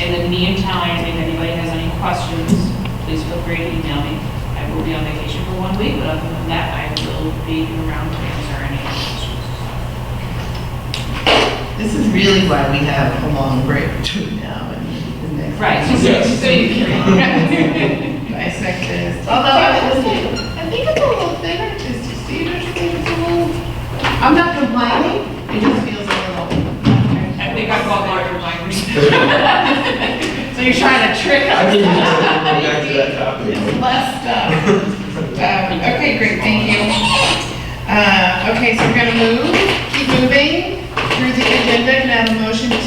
In the meantime, if anybody has any questions, please feel free to email me. I will be on vacation for one week, but other than that, I will be around to answer any questions. This is really why we have a long break between now and the next. Right. Yes. So you can. Dissect this, although I would say, I think it's a little thinner, just to see, there's a little, I'm not complaining, it just feels a little. I think I've got larger minds. So you're trying to trick I us. didn't want to go back to that topic. It's less stuff. Um, Okay, great, thank you. Uh, okay, so we're gonna move, keep moving through the agenda, can I have a motion to,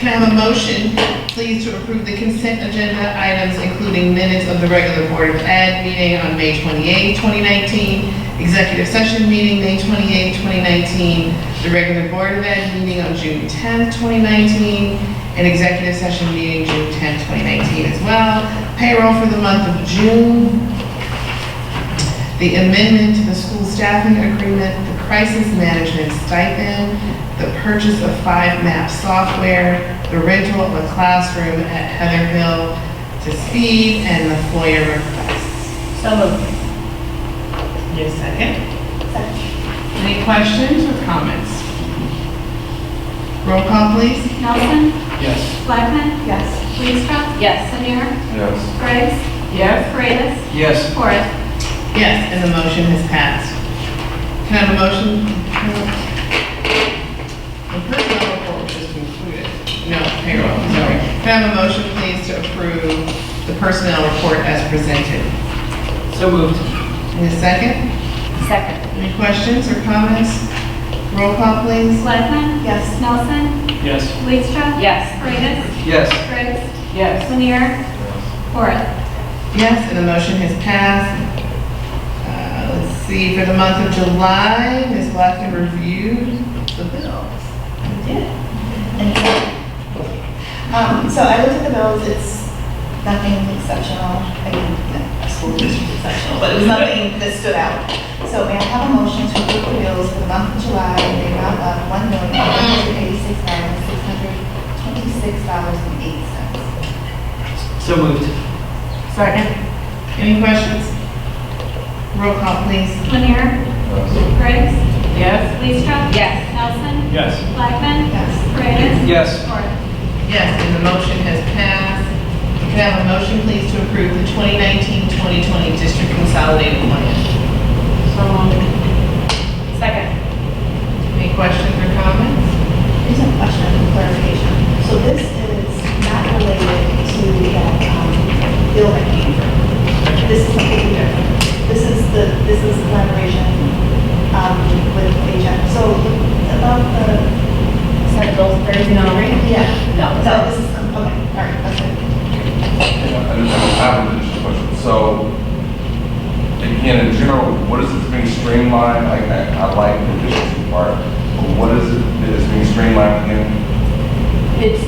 can I have a motion, please, to approve the consent agenda items, including minutes of the regular Board of Ed meeting on May 28, 2019, executive session meeting, May 28, 2019, the regular Board of Ed meeting on June 10, 2019, and executive session meeting June 10, 2019 as well, payroll for the month of June, the amendment to the school staffing agreement, the crisis management stipend, the purchase of five map software, the rental of a classroom at Heather Hill to Steve, and the FOIA request. So moved. Your second? Any questions or comments? Roll call, please. Nelson? Yes. Blackman? Yes. Leestra? Yes. Lanier? Yes. Graves? Yes. Paredes? Yes. Corrigan? Yes, and the motion has passed. Can I have a motion? The personnel report was just included. No, payroll, sorry. Can I have a motion, please, to approve the personnel report as presented? So moved. In a second, Second. any questions or comments? Roll call, please. Blackman? Yes. Nelson? Yes. Leestra? Yes. Paredes? Yes. Graves? Yes. Lanier? Corrigan? Yes, and the motion has passed. Uh, Let's see, for the month of July, Ms. Blackton reviewed the bills. Um, so I looked at the bills, it's nothing exceptional, I mean, the school district exceptional, but it was nothing that stood out. So may I have a motion to approve the bills for the month of July in the amount of one million, one hundred eighty-six thousand, six hundred twenty-six dollars and eight cents? So moved. Second. Any questions? Roll call, please. Lanier? Graves? Yes. Leestra? Yes. Nelson? Yes. Blackman? Yes. Paredes? Yes. Corrigan? Yes, and the motion has passed. Can I have a motion, please, to approve the 2019-2020 district consolidated plan? Second. Any questions or comments? There's a question and clarification. So this is not related to that um, bill that came through. This is something different. This is the, this is collaboration um, with Ajax. So about the, Set goals, there's yeah, No. so this is, okay, all right, that's it. Yeah, I just have I have an additional question. So, again, in general, what is it being streamlined? Like, I, I like the efficiency part, but what is it that is being streamlined again? It's,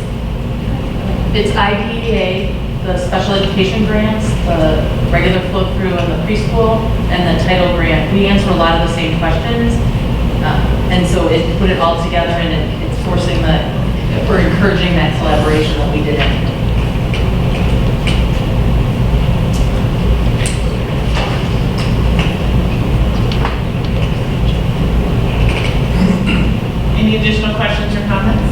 it's IDEA, the special education grants, the regular flow through and the preschool, and the title grant. We answer a lot of the same questions. uh, And so it put it all together and it- it's forcing the, we're encouraging that collaboration that we did. Any additional questions or comments?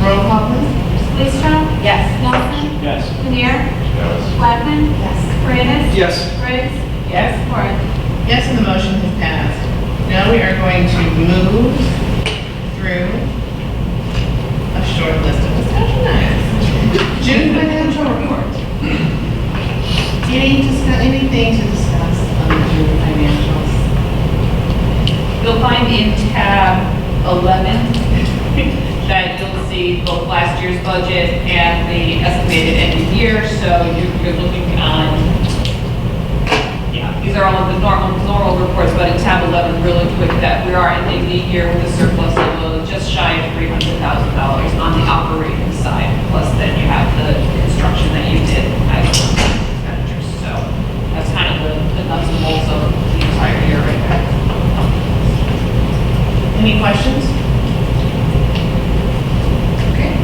Roll call, please. Leestra? Yes. Nelson? Yes. Lanier? Yes. Blackman? Yes. Paredes? Yes. Graves? Yes. Corrigan? Yes, and the motion has passed. Now we are going to move through a short list of discussion items. June financial report. Any, discuss- anything to discuss on the June financials? You'll find in tab 11 that you'll see both last year's budget and the estimated end of year, so you're you're looking on, yeah, these are all of the normal, normal reports, but in tab 11, really quick, that we are ending the year with a surplus of uh, just shy of $300,000 on the